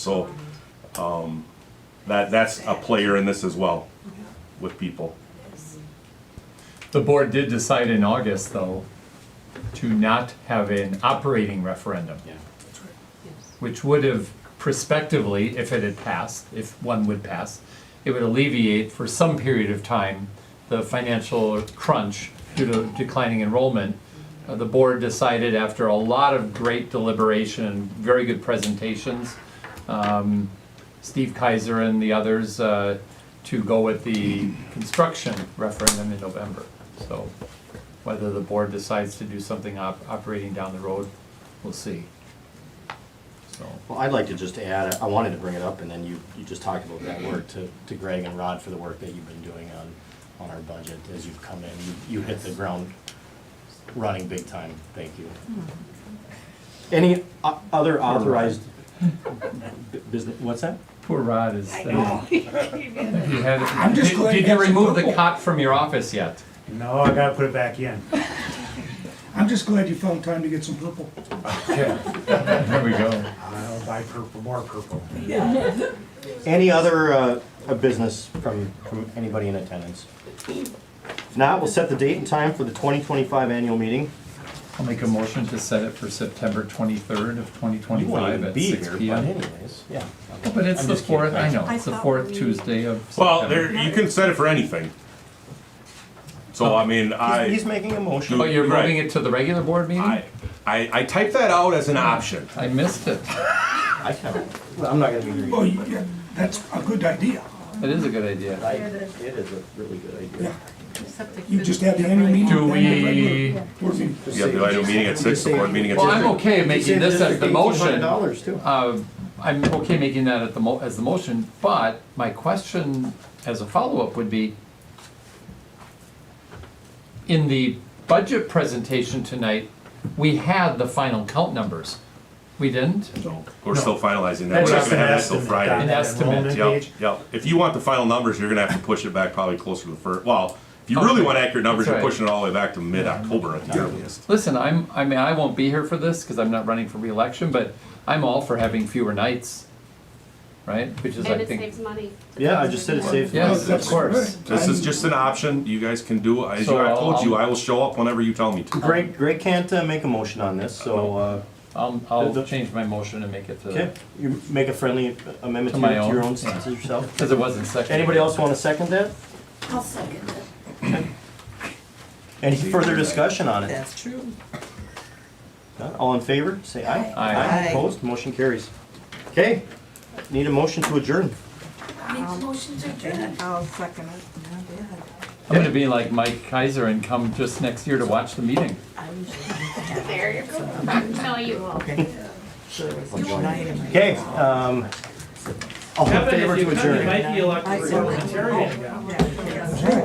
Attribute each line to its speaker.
Speaker 1: So, um, that, that's a player in this as well with people.
Speaker 2: The board did decide in August, though, to not have an operating referendum. Which would have prospectively, if it had passed, if one would pass, it would alleviate for some period of time the financial crunch due to declining enrollment. Uh, The board decided after a lot of great deliberation, and very good presentations, um, Steve Kaiser and the others uh, to go with the construction referendum in November. So whether the board decides to do something op- operating down the road, we'll see. So,
Speaker 3: Well, I'd like to just add, I wanted to bring it up, and then you, you just talked about that work to, to Greg and Rod for the work that you've been doing on, on our budget as you've come in. You, you hit the ground running big time. Thank you. Any o- other authorized bu- business, what's that?
Speaker 2: poor Rod is.
Speaker 4: I know. It's
Speaker 2: He had-
Speaker 5: just
Speaker 2: Did-
Speaker 5: glad
Speaker 2: Did you
Speaker 5: that's
Speaker 2: remove the
Speaker 5: purple.
Speaker 2: cot from your office yet?
Speaker 6: No, I gotta put it back in.
Speaker 5: I'm just glad you found time to get some purple.
Speaker 2: There we go.
Speaker 6: I'll buy purple, more purple.
Speaker 3: Any other, uh, uh, business from, from anybody in attendance? If not, we'll set the date and time for the twenty twenty-five annual meeting.
Speaker 2: I'll make a motion to set it for September twenty-third of twenty
Speaker 3: You won't
Speaker 2: twenty-five
Speaker 3: even
Speaker 2: at
Speaker 3: be
Speaker 2: six
Speaker 3: here,
Speaker 2: P
Speaker 3: but
Speaker 2: M.
Speaker 3: anyways, yeah.
Speaker 2: But it's
Speaker 3: I'm
Speaker 2: the
Speaker 3: just kidding.
Speaker 2: fourth, I know,
Speaker 4: I
Speaker 2: it's the
Speaker 4: thought
Speaker 2: fourth
Speaker 4: we-
Speaker 2: Tuesday of September.
Speaker 1: Well, there, you can set it for anything. So, I mean,
Speaker 3: He's,
Speaker 1: I,
Speaker 3: he's making a motion.
Speaker 2: Oh, you're
Speaker 1: Right.
Speaker 2: moving it to the regular board meeting?
Speaker 1: I, I I typed that out as an option.
Speaker 2: I missed it.
Speaker 3: I can't, well, I'm not gonna be.
Speaker 5: Well, Oh, you- yeah, that's a good idea.
Speaker 2: That is a good idea.
Speaker 3: I- It is a really good idea.
Speaker 5: Yeah. You just have the annual meeting.
Speaker 2: Do
Speaker 5: then the regular
Speaker 2: we,
Speaker 5: board meeting.
Speaker 1: You have the annual meeting at six, the board meeting at
Speaker 2: well, I'm
Speaker 1: six.
Speaker 2: okay making this as the motion.
Speaker 3: Dollars too.
Speaker 2: Uh, I'm okay making that at the mo, as the motion, but my question as a follow-up would be, in the budget presentation tonight, we had the final count numbers. We didn't?
Speaker 1: So, We're still finalizing that.
Speaker 6: That's
Speaker 1: We're not
Speaker 6: just
Speaker 1: gonna
Speaker 6: an
Speaker 1: have that till
Speaker 6: estimate,
Speaker 1: Friday.
Speaker 6: Don,
Speaker 2: An
Speaker 6: that
Speaker 2: estimate,
Speaker 6: enrollment
Speaker 1: Yep,
Speaker 6: page.
Speaker 1: yep. If you want the final numbers, you're gonna have to push it back probably closer to the first, well, if you really
Speaker 2: Okay.
Speaker 1: want accurate numbers,
Speaker 2: That's
Speaker 1: you're
Speaker 2: right.
Speaker 1: pushing it all the way back to mid-October at the earliest.
Speaker 2: Listen, I'm, I mean, I won't be here for this because I'm not running for reelection, but I'm all for having fewer nights, right? Which is,
Speaker 7: And
Speaker 2: I
Speaker 7: it
Speaker 2: think,
Speaker 7: saves money.
Speaker 3: Yeah, I just said it saves.
Speaker 2: yes, of
Speaker 5: That's
Speaker 2: course.
Speaker 5: right.
Speaker 1: This is just an option. You guys can do, as
Speaker 2: So
Speaker 1: you- I
Speaker 2: I'll-
Speaker 1: told you,
Speaker 2: I'll-
Speaker 1: I will show up whenever you tell me to.
Speaker 3: Greg, Greg can't uh, make a motion on this, so, uh,
Speaker 2: I'll,
Speaker 3: The-
Speaker 2: I'll
Speaker 3: the-
Speaker 2: change my motion and make it
Speaker 3: okay,
Speaker 2: to,
Speaker 3: you make a friendly amendment
Speaker 2: To
Speaker 3: to
Speaker 2: my
Speaker 3: your- to your
Speaker 2: own,
Speaker 3: own, to yourself.
Speaker 2: because it wasn't seconded.
Speaker 3: Anybody else want to second that?
Speaker 4: I'll second it.
Speaker 3: Any further discussion on it?
Speaker 4: That's true.
Speaker 3: None? All in favor, say aye.
Speaker 2: Aye.
Speaker 4: Aye.
Speaker 3: Opposed, motion carries. Okay, need a motion to adjourn.
Speaker 4: I'll second it.
Speaker 2: I'm gonna be like Mike Kaiser and come just next year to watch the meeting.
Speaker 7: There you go. No, you won't.
Speaker 3: Okay, um, all in favor to adjourn.
Speaker 4: I second it.